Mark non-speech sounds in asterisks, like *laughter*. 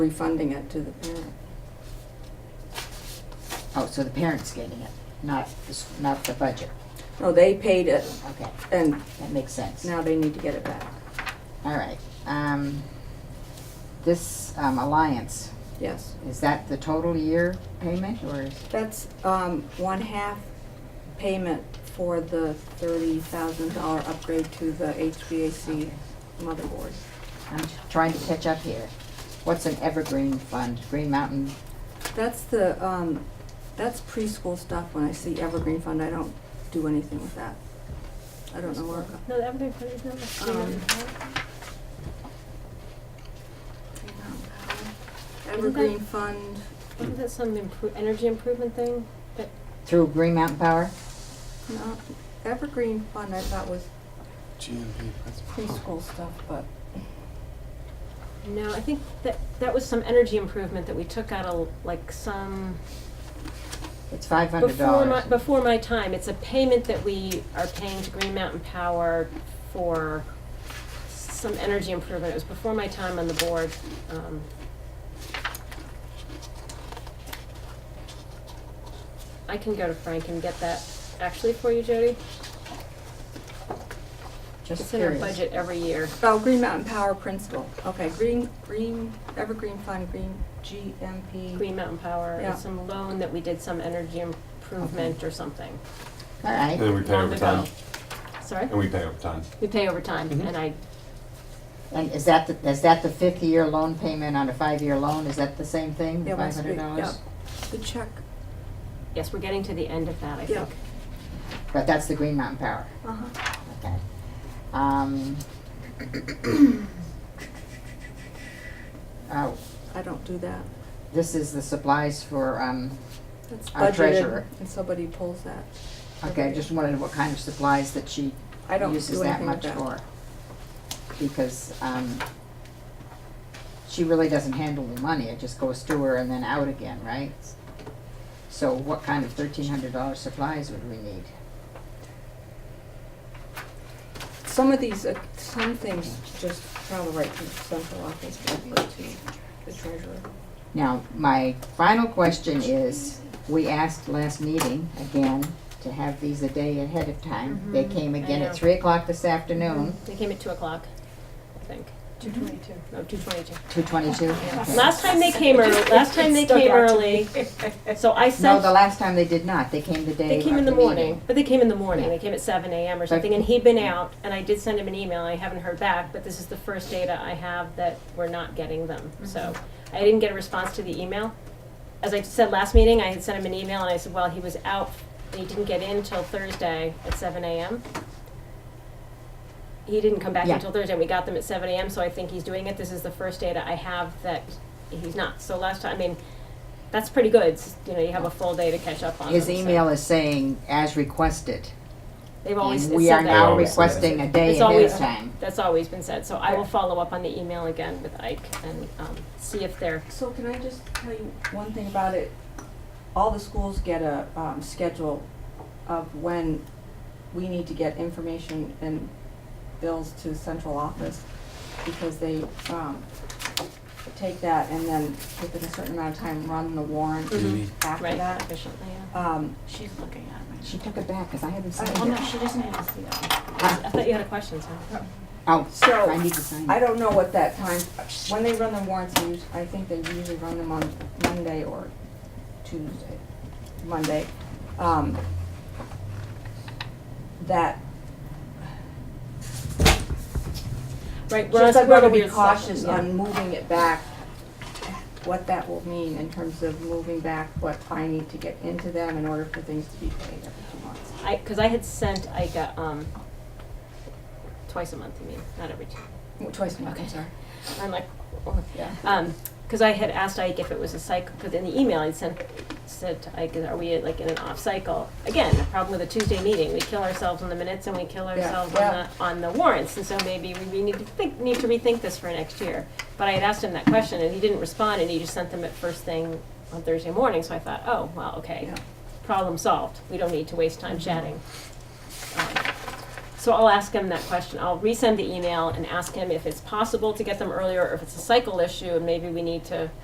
refunding it to the parent. Oh, so the parent's getting it, not, the s- not the budget. No, Oh, they paid it Okay, and that makes sense. now they need to get it back. All right. Um, this, um, Alliance, Yes. is that the total year payment or is, That's um, one half payment for the thirty thousand dollar upgrade to the HVAC motherboard. I'm trying to catch up here. What's an evergreen fund? Green Mountain? That's the, um, that's preschool stuff. When I see Evergreen Fund, I don't do anything with that. I don't know where, No, the everything fund is number three. Um, right? Evergreen Fund, Wasn't that some impro- energy improvement thing? But Through Green Mountain Power? no, Evergreen Fund I thought was GMP principal. preschool stuff, but no, I think that that was some energy improvement that we took out of like some It's five hundred before my dollars. before my time. It's a payment that we are paying to Green Mountain Power for some energy improvement. It was before my time on the board. Um, I can go to Frank and get that actually for you, Jody. Just It's in our curious. budget every year. Oh, Green Mountain Power Principal, okay, Green, Green, Evergreen Fund, Green GMP. Green Mountain Power Yeah. and some loan that we did some energy improvement or something. All And right, then we pay long overtime. ago. Sorry? And we pay overtime. We pay overtime Mhm. and I, and is that, the- is that the fifth year loan payment on a five-year loan? Is that the same thing, Yeah, five once we- hundred dollars? yeah. The check, yes, we're getting to the end of that, I Yeah. think. But that's the Green Mountain Power, uh-huh, okay. *coughs* Um. Oh, I don't do that, this is the supplies for, um, that's Our budgeted, treasurer. and somebody pulls that. okay, I just wondered what kind of supplies that she I don't uses do that anything with much that. for. Because, um, she really doesn't handle the money, it just goes to her and then out again, right? So what kind of thirteen hundred dollar supplies would we need? Some of these, uh, some things just travel right to the central office, maybe to the treasurer. Now, my final question is, we asked last meeting, again, to have these a day ahead of time. They Mhm, came I again at know. three o'clock this afternoon, They came at two o'clock, I think. Two twenty-two. No, two twenty-two. two twenty-two. Last time they came early, last time they came early, so I No, the sent, last time they did not, they came the day they came in of the meeting. morning, but they came in the morning. Yeah. They came at seven AM or something and he'd been out and I did send him an email. I haven't heard back, but this is the first data I have that we're not getting them. Mm-hmm. So I didn't get a response to the email. as I said last meeting, I had sent him an email and I said, well, he was out and he didn't get in till Thursday at seven AM. He didn't come back Yeah. until Thursday, and we got them at seven AM, so I think he's doing it, this is the first data I have that he's not, so last time, I mean, that's pretty good, It's- you know, you have a full day to catch up on them, His so. email is saying, as requested. They've always And said that. we are now always said requesting a day It's ahead of always- time. That's always been said, so I will follow up on the email again with Ike and, um, see if they're, So can I just tell you one thing about it? All the schools get a, um, schedule of when we need to get information and bills to central office because they, um, take that and then within a certain amount of time, run the warrant Mhm. after right, that. efficiently, yeah. Um, She's looking at me. She took it back, because I haven't signed Oh, no, it. she doesn't need to see that. I thought you had a question, so. Oh, So, I need to sign I it. don't know what that time, when they run the warrants, they us- I think they usually run them on Monday or Tuesday, Monday. Um, That, Right, we're on, just like we're we're on to the be weird cautious stuff, yeah. on moving it back, what that will mean in terms of moving back what I need to get into them in order for things to be paid every two months. I, because I had sent Ike a, um, twice a month, I mean, not every two. Well, Twice a month, I'm Okay. sorry. I'm like, Yeah. um, because I had asked Ike if it was a cycle, because in the email I'd sent, said to Ike, are we like in an off cycle? Again, the problem with a Tuesday meeting, we kill ourselves on the minutes and we kill ourselves yeah. on the, on the warrants, and so maybe we, we need to think, need to rethink this for next year. But I had asked him that question and he didn't respond and he just sent them at first thing on Thursday morning, so I thought, oh, well, okay, Yeah. problem solved, we don't need to waste time chatting. Um, So I'll ask him that question. I'll resend the email and ask him if it's possible to get them earlier, or if it's a cycle issue, and maybe we need to